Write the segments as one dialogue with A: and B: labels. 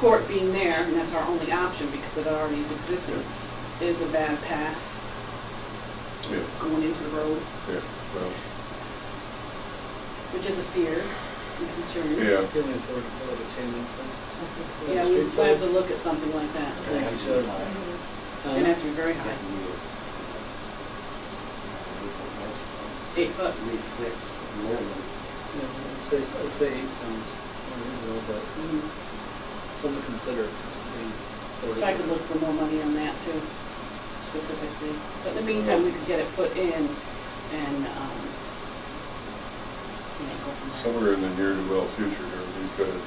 A: court being there, and that's our only option because it already is existing, is a bad pass
B: Yeah,
A: going into the road,
B: yeah, well,
A: which is a fear and concern.
B: yeah.
C: Feeling for the road to change in
A: Yeah, we would have to look at something like that.
C: place. Yeah, so,
A: It'd
D: Mm-hmm.
C: um,
A: have to be very high. Eight foot.
E: At least six minimum.
C: Yeah, I'd say, I'd say eight sounds more reasonable, but
A: Mm.
C: something to consider.
A: So I could look for more money on that too, specifically. But in the meantime, we could get it put in and, um, you know, go from there.
B: Somewhere in the near to well future here, we've got to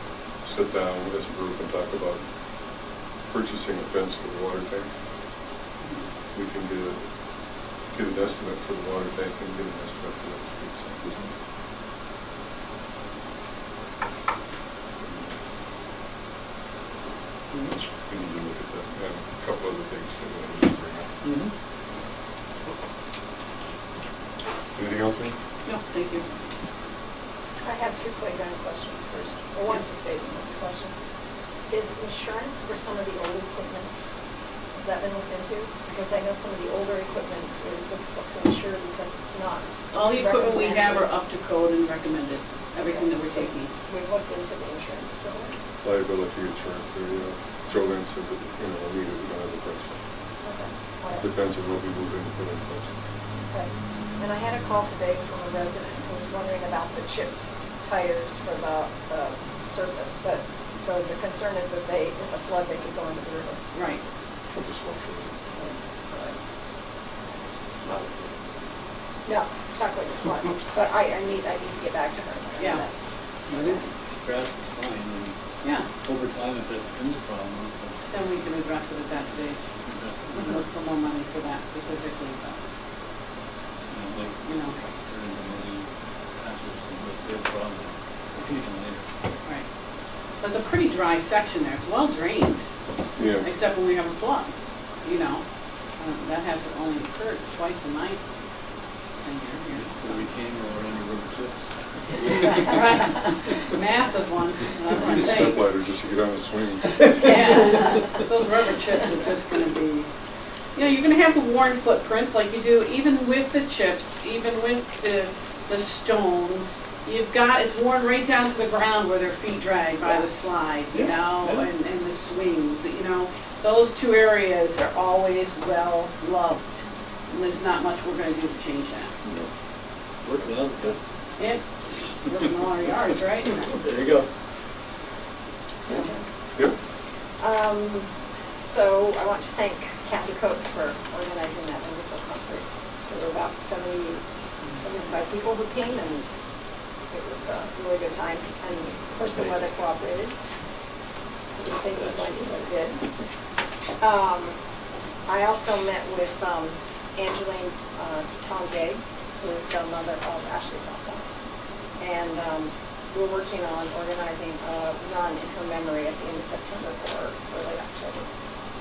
B: sit down as a group and talk about purchasing a fence for the water tank. We can get, a- get an estimate for the water tank and get an estimate for the street sign. We need to look at that, and a couple other things that we need to bring up.
C: Mm-hmm.
B: Anything else, Ian?
A: No, thank you.
D: I have two playground questions first. Well, one's a statement, one's a question. Is insurance for some of the old equipment, has that been looked into? Because I know some of the older equipment is difficult to insure because it's not.
A: All the equipment we have are up
D: recommended.
A: to code and recommended, everything that we're
D: So
A: taking.
D: We've looked into the insurance for it.
B: Liability insurance, or, you know, Joe Lynn said that, you know, we need to have a price.
D: Okay. All right.
B: Depends on what we move in, put in place.
D: Okay. And I had a call today from a resident who was wondering about the chipped tires for the uh, surface, but, so the concern is that they, with the flood, they could go into the river.
A: Right.
B: I'll just watch it.
E: Not-
D: No, it's not going to flood, but I, I need, I need to get back to her. on
A: Yeah.
D: that.
C: I think grass is fine, and
A: Yeah,
C: over time, if it becomes a problem, I'll
A: then we can address it at that stage.
C: address it.
A: We can look for more money for that specifically, but,
C: You know, like,
A: you know,
C: turn into maybe patches and like real problem, we can even later.
A: right. There's a pretty dry section there, it's well drained,
B: Yeah,
A: except when we have a flood, you know? Um, That has only occurred twice in my tenure here.
C: When we came, we were under rubber chips.
A: Right. Massive one, that's what
B: I
A: I'm
B: need a
A: saying.
B: stepladder just to get on the swing.
A: Yeah, 'cause those rubber chips are just gonna be, you know, you're gonna have the worn footprints like you do, even with the chips, even with the, the stones. You've got, it's worn right down to the ground where their feet drag by the slide, you
C: Yeah,
A: know,
C: yeah.
A: and, and the swings, you know. Those two areas are always well loved, and there's not much we're gonna do to change that.
C: Work well, but
A: It, we're in all our yards, right?
C: there you go.
B: Yep,
D: Um, so I want to thank Kathy Coates for organizing that wonderful concert. There were about 70, 75 people who came and it was a really good time. And of course, the weather cooperated. I didn't think it was going to, but it did. Um, I also met with um, Angeline uh, Tongay, who is the mother of Ashley Russell. And um, we're working on organizing a run in her memory at the end of September or early October.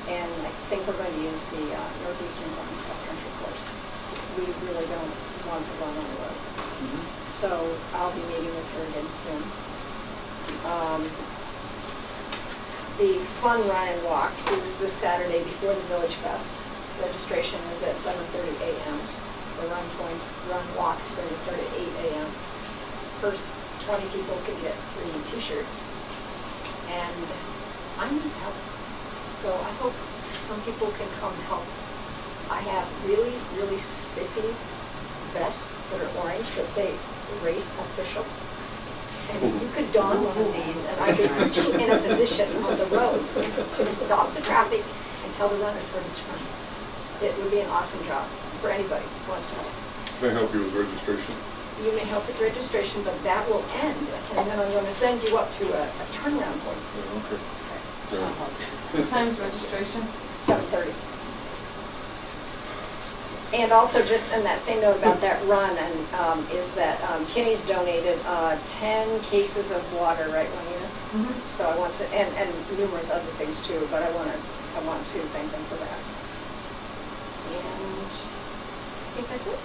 D: And I think we're going to use the uh, Northeastern Run Cross Country Course. We really don't want the run on the roads. So I'll be meeting with her again soon. Um, The Fun Run and Walk is this Saturday before the Village Fest. Registration is at 7:30 a.m. The run's going to, run walk is going to start at 8 a.m first 20 people can get free t-shirts. And I need help. So I hope some people can come help. I have really, really spiffy vests that are orange that say race official. And you could don one of these and I could put you in a position on the road to stop the traffic and tell the runners where to turn. It would be an awesome job for anybody who wants to help.
B: can I help you with registration?
D: You may help with registration, but that will end, and then I'm going to send you up to a a turnaround point,
B: Yeah, Okay.
A: Uh-huh.
B: Yeah.
F: What time's registration?
D: 7:30. And also, just in that same note about that run, and um, is that um, Kinney's donated uh, 10 cases of water, right, one year? So I want to, and, and numerous other things too, but I want to, I want to thank them for that. And I think that's it.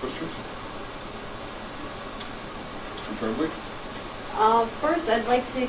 B: Questions? Mr. Tremblay?
F: Uh, First, I'd like to